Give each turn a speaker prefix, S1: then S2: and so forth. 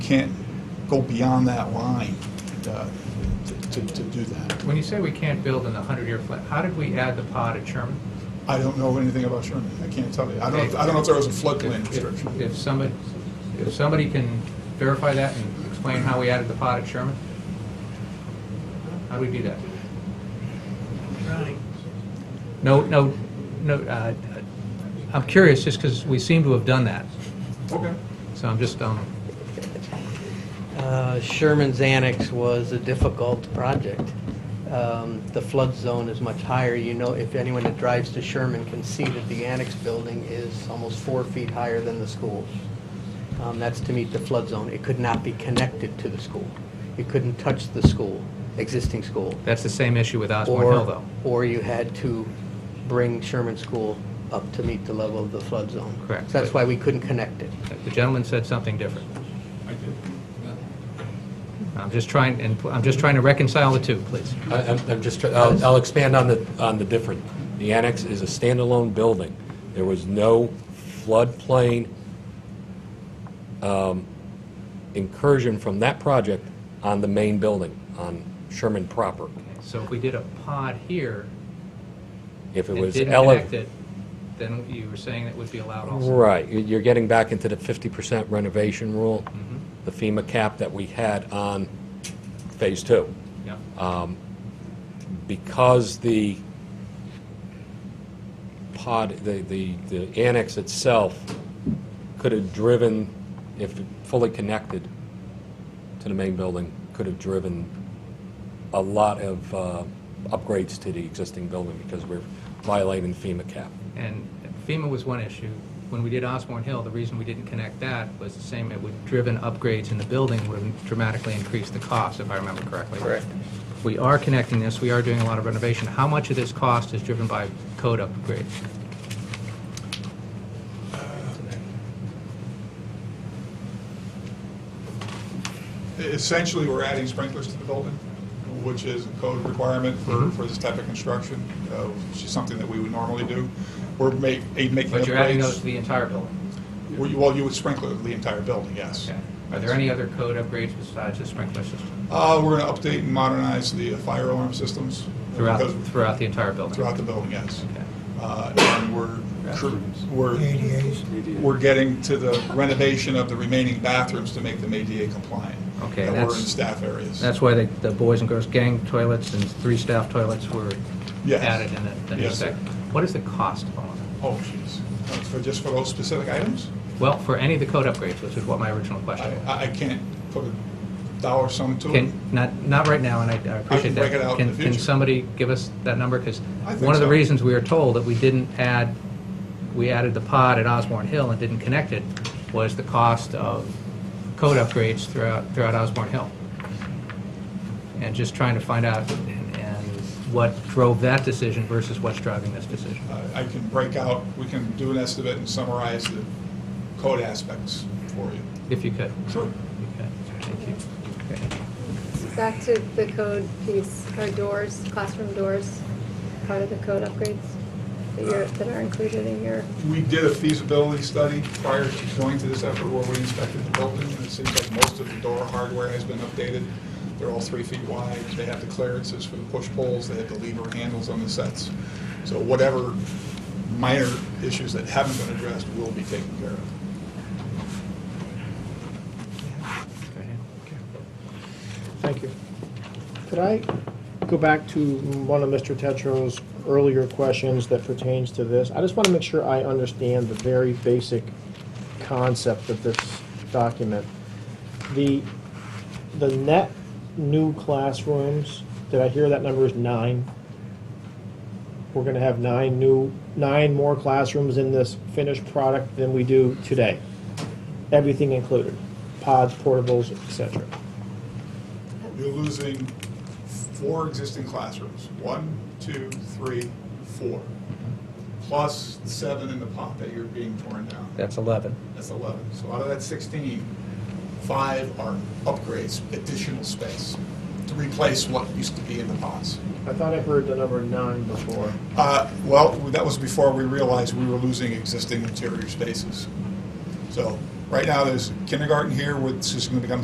S1: can't go beyond that line uh, to, to do that.
S2: When you say we can't build in the 100-year flood, how did we add the pod at Sherman?
S1: I don't know anything about Sherman, I can't tell you. I don't, I don't know if there was a floodplain
S2: If- if-
S1: restriction.
S2: If somebody, if somebody can verify that and explain how we added the pod at Sherman? How do we do that? No, no, no, uh, I'm curious, just because we seem to have done that,
S1: Okay.
S2: so I'm just, um,
S3: Uh, Sherman's Annex was a difficult project. Um, The flood zone is much higher. You know, if anyone that drives to Sherman can see that the annex building is almost four feet higher than the school. Um, That's to meet the flood zone. It could not be connected to the school. It couldn't touch the school, existing school.
S2: that's the same issue with Osborne Hill,
S3: Or,
S2: though.
S3: or you had to bring Sherman School up to meet the level of the flood zone.
S2: Correct.
S3: So That's why we couldn't connect it.
S2: The gentleman said something different. I'm just trying, and I'm just trying to reconcile the two, please.
S4: I- I'm I'm just, try- I'll I'll expand on the, on the different. The annex is a standalone building. There was no floodplain um, incursion from that project on the main building, on Sherman proper.
S2: So if we did a pod here
S4: If it
S2: and
S4: was
S2: didn't connect
S4: elevated.
S2: it, then you were saying that would be allowed also?
S4: Right, You- you're getting back into the 50% renovation rule,
S2: Mm-hmm.
S4: the FEMA cap that we had on Phase Two.
S2: Yeah.
S4: because the pod, the, the, the annex itself could have driven, if fully connected to the main building, could have driven a lot of uh, upgrades to the existing building because we're violating FEMA cap.
S2: And FEMA was one issue. When we did Osborne Hill, the reason we didn't connect that was the same, it would driven upgrades in the building would have dramatically increased the cost, if I remember correctly. Correct. We are connecting this, we are doing a lot of renovation. How much of this cost is driven by code upgrades?
S1: Essentially, we're adding sprinklers to the building, which is a code requirement
S2: Mm-hmm.
S1: for, for this type of construction, uh, which is something that we would normally do. We're make, eh, making
S2: But you're adding those to
S1: upgrades.
S2: the entire building.
S1: Well, you- Well, you would sprinkler the entire building, yes.
S2: Okay. Are there any other code upgrades besides the sprinkler system
S1: Uh, We're going to update and modernize the uh, fire alarm systems. uh,
S2: throughout,
S1: because-
S2: throughout the entire building?
S1: Throughout the building, yes.
S2: Okay.
S1: Uh, And we're,
S5: Restrooms.
S1: we're,
S6: ADAs.
S1: we're getting to the renovation of the remaining bathrooms to make them ADA compliant.
S2: Okay,
S1: That were
S2: that's-
S1: in staff areas.
S2: That's why the, the boys and girls gang toilets and three staff toilets were
S1: Yes.
S2: added in that, that
S1: Yes.
S2: respect. What is the cost of all of that?
S1: Oh, jeez. Uh, For, just for those specific items?
S2: Well, for any of the code upgrades, which is what my original
S1: I,
S2: question was.
S1: I I can't put a dollar sum to it.
S2: Can, not, not right now, and I I appreciate that.
S1: break it out in
S2: Can-
S1: the
S2: Can
S1: future.
S2: somebody give us that number? Because
S1: I think
S2: one of the
S1: so.
S2: reasons we were told that we didn't add, we added the pod at Osborne Hill and didn't connect it was the cost of code upgrades throughout, throughout Osborne Hill. And just trying to find out and and what drove that decision versus what's driving this decision.
S1: Uh, I can break out, we can do an estimate and summarize the code aspects for you.
S2: If you could.
S1: Sure.
S2: Okay, Thank you. Okay.
S7: Back to the code piece, our doors, classroom doors, part of the code upgrades that you're, that are included in your,
S1: We did a feasibility study prior to going to this effort where we inspected the building, and it seems like most of the door hardware has been updated. They're all three feet wide, they have the clearances for the push poles, they have the lever handles on the sets. So whatever minor issues that haven't been addressed will be taken care of.
S8: Thank you. Could I go back to one of Mr. Tetro's earlier questions that pertains to this? I just want to make sure I understand the very basic concept of this document. The, the net new classrooms, did I hear that number is nine? We're going to have nine new, nine more classrooms in this finished product than we do today. Everything included, pods, portables, et cetera.
S1: You're losing four existing classrooms, one, two, three, four, plus the seven in the pot that you're being torn down.
S2: That's 11.
S1: That's 11. So out of that 16, five are upgrades, additional space to replace what used to be in the pods.
S8: I thought I heard the number nine before.
S1: Uh, Well, that was before we realized we were losing existing interior spaces. So right now, there's kindergarten here, which is going to become